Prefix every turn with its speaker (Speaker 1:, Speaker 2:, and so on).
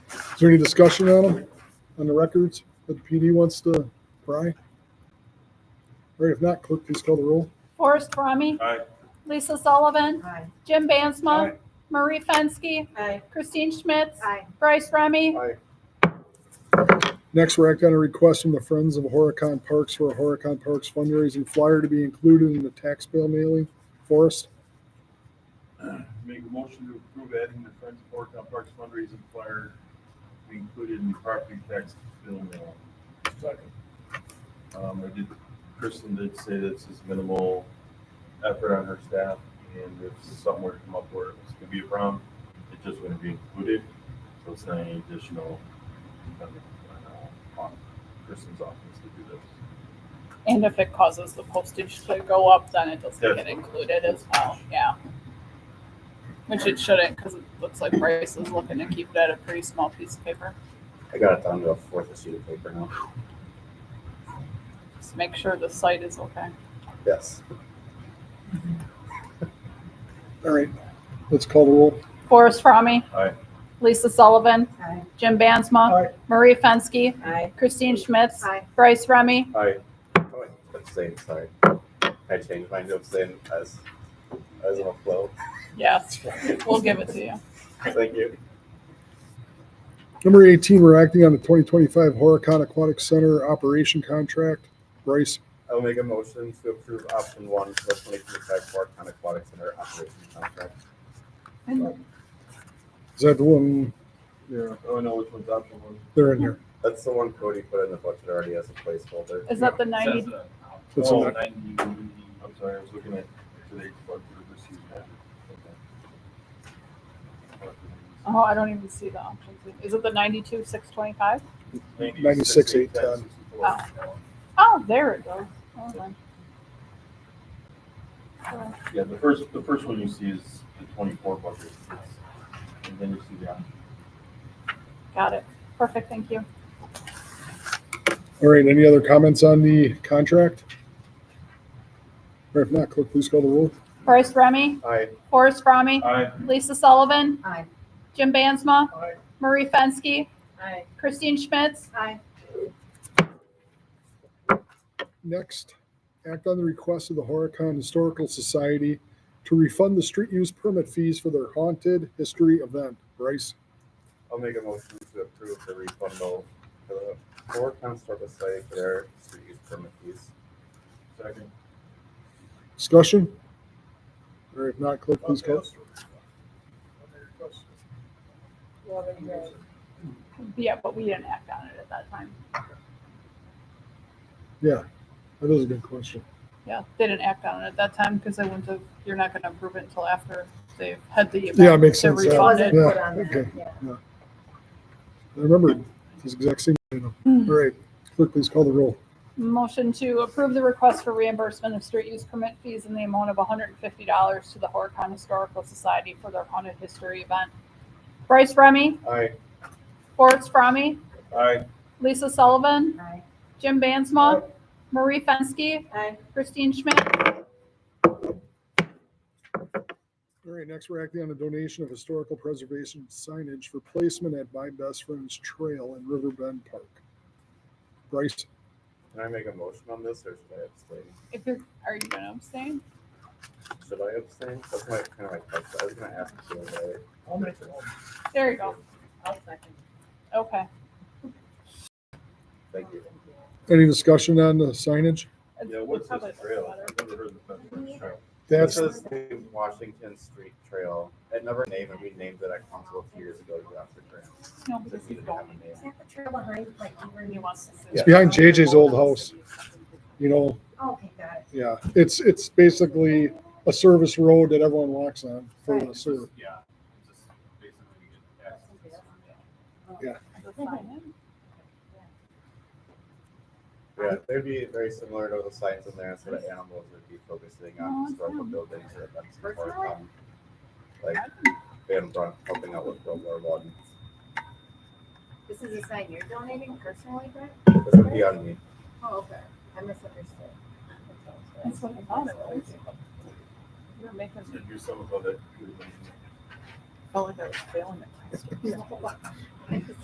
Speaker 1: there any discussion on them, on the records that the PD wants to pry? All right, if not, clerk, please call the roll.
Speaker 2: Forrest Fromme.
Speaker 3: Aye.
Speaker 2: Lisa Sullivan.
Speaker 4: Aye.
Speaker 2: Jim Bansma.
Speaker 3: Aye.
Speaker 2: Marie Fenske.
Speaker 4: Aye.
Speaker 2: Christine Schmitz.
Speaker 4: Aye.
Speaker 2: Bryce Remy.
Speaker 1: Next, we're acting on a request from the Friends of Horicon Parks for a Horicon Parks fundraising flyer to be included in the tax bill mailing. Forrest,
Speaker 3: Make a motion to approve adding the Friends of Fort Town Parks fundraising flyer to be included in the property tax bill mail. Um, I did, Kristen did say this is minimal effort on her staff, and if something were to come up where it was gonna be a problem, it just wouldn't be included, so it's not any additional. um, uh, on Kristen's office to do this.
Speaker 5: And if it causes the postage to go up, then it doesn't
Speaker 3: Yes.
Speaker 5: get included as well, yeah. Which it shouldn't, because it looks like Bryce is looking to keep that a pretty small piece of paper.
Speaker 6: I got it down to a fourth of sheet of paper now.
Speaker 5: Just make sure the site is okay.
Speaker 6: Yes.
Speaker 1: all right, let's call the roll.
Speaker 2: Forrest Fromme.
Speaker 3: Aye.
Speaker 2: Lisa Sullivan.
Speaker 4: Aye.
Speaker 2: Jim Bansma. Marie Fenske.
Speaker 4: Aye.
Speaker 2: Christine Schmitz.
Speaker 4: Aye.
Speaker 2: Bryce Remy.
Speaker 6: Aye. Oh, abstain, sorry. I changed mine to abstain as, as a flow.
Speaker 5: Yes, we'll give it to you.
Speaker 6: Thank you.
Speaker 1: Number 18, we're acting on the 2025 Horicon Aquatic Center operation contract. Bryce,
Speaker 6: I'll make a motion to approve option one for the twenty twenty-five Fort County Aquatic Center operation contract.
Speaker 1: is that the one? Yeah,
Speaker 3: Oh, no, which one's option one?
Speaker 1: they're in here.
Speaker 6: That's the one Cody put in the budget already as a placeholder.
Speaker 5: Is that the ninety?
Speaker 1: That's
Speaker 3: Oh,
Speaker 1: an-
Speaker 3: 90. I'm sorry, I was looking at today's budget received.
Speaker 5: Oh, I don't even see the options. Is it the ninety-two, six twenty-five?
Speaker 1: 96, eight, ten.
Speaker 5: Oh, there it goes. Hold on.
Speaker 3: Yeah, the first, the first one you see is the twenty-four bucket. And then you see the, option.
Speaker 5: Got it. Perfect, thank you.
Speaker 1: All right, any other comments on the contract? Or if not, clerk, please call the roll.
Speaker 2: Bryce Remy.
Speaker 6: Aye.
Speaker 2: Forrest Fromme.
Speaker 3: aye,
Speaker 2: Lisa Sullivan.
Speaker 4: Aye.
Speaker 2: Jim Bansma.
Speaker 3: Aye.
Speaker 2: Marie Fenske.
Speaker 4: Aye.
Speaker 2: Christine Schmitz.
Speaker 4: Aye.
Speaker 1: Next, act on the request of the Horicon Historical Society to refund the street use permit fees for their haunted history event. Bryce,
Speaker 6: I'll make a motion to approve the refundal for the Fort County Historical Society for their street use permit fees.
Speaker 3: second.
Speaker 1: discussion? Or if not, clerk, please call.
Speaker 5: Yeah, but we didn't act on it at that time.
Speaker 1: That is a good question.
Speaker 5: Yeah, they didn't act on it at that time because they wouldn't have, you're not gonna approve it until after they've had the.
Speaker 1: Yeah, it makes
Speaker 5: event,
Speaker 1: sense, yeah.
Speaker 5: they're
Speaker 4: It wasn't
Speaker 5: refunded.
Speaker 1: Yeah,
Speaker 4: put on that,
Speaker 1: okay.
Speaker 4: yeah.
Speaker 1: I remember this exact same. item. All right, clerk, please call the roll.
Speaker 5: Motion to approve the request for reimbursement of street use permit fees in the amount of hundred and fifty dollars to the Horicon Historical Society for their haunted history event.
Speaker 2: Bryce Remy.
Speaker 6: Aye.
Speaker 2: Forrest Fromme.
Speaker 3: Aye,
Speaker 2: Lisa Sullivan.
Speaker 4: Aye.
Speaker 2: Jim Bansma.
Speaker 4: Oh.
Speaker 2: Marie Fenske.
Speaker 4: Aye.
Speaker 2: Christine Schmidt.
Speaker 1: All right, next we're acting on a donation of historical preservation signage for placement at My Best Friend's Trail in River Bend Park. Bryce,
Speaker 6: Can I make a motion on this or should I abstain?
Speaker 5: If you're, are you gonna abstain?
Speaker 6: Should I abstain? That's my, kind of my question. I was gonna ask you about it.
Speaker 5: There you go.
Speaker 4: I'll second.
Speaker 5: Okay.
Speaker 6: Thank you.
Speaker 1: any discussion on the signage?
Speaker 3: yeah, what's
Speaker 5: Probably
Speaker 3: this trail?
Speaker 5: better.
Speaker 3: I've never heard of that trail.
Speaker 1: That's,
Speaker 6: This is the Washington Street Trail. It never named, and we named it at council a few years ago to go after grant.
Speaker 5: No,
Speaker 6: So
Speaker 5: because
Speaker 6: we
Speaker 5: he's
Speaker 6: didn't have
Speaker 5: going.
Speaker 6: a name.
Speaker 7: Is that the trail behind, like, where
Speaker 5: He
Speaker 7: you want?
Speaker 5: wants to.
Speaker 1: it's behind JJ's old house, you know,
Speaker 7: Okay, got it.
Speaker 1: yeah, it's, it's basically a service road that everyone walks on for the service.
Speaker 3: Yeah. just basically get access.
Speaker 6: Yeah, they'd be very similar to the signs in there, sort of animals would be focusing
Speaker 7: Oh,
Speaker 6: on historical buildings or events before um, like Van Brunt helping out with World War One.
Speaker 7: This is a sign you're donating personally, Brett?
Speaker 6: This would be on me.
Speaker 7: Oh, okay. I misunderstood.
Speaker 5: That's what I thought it was. You're making me
Speaker 3: Did you some of that?
Speaker 5: feel like I was failing at last year.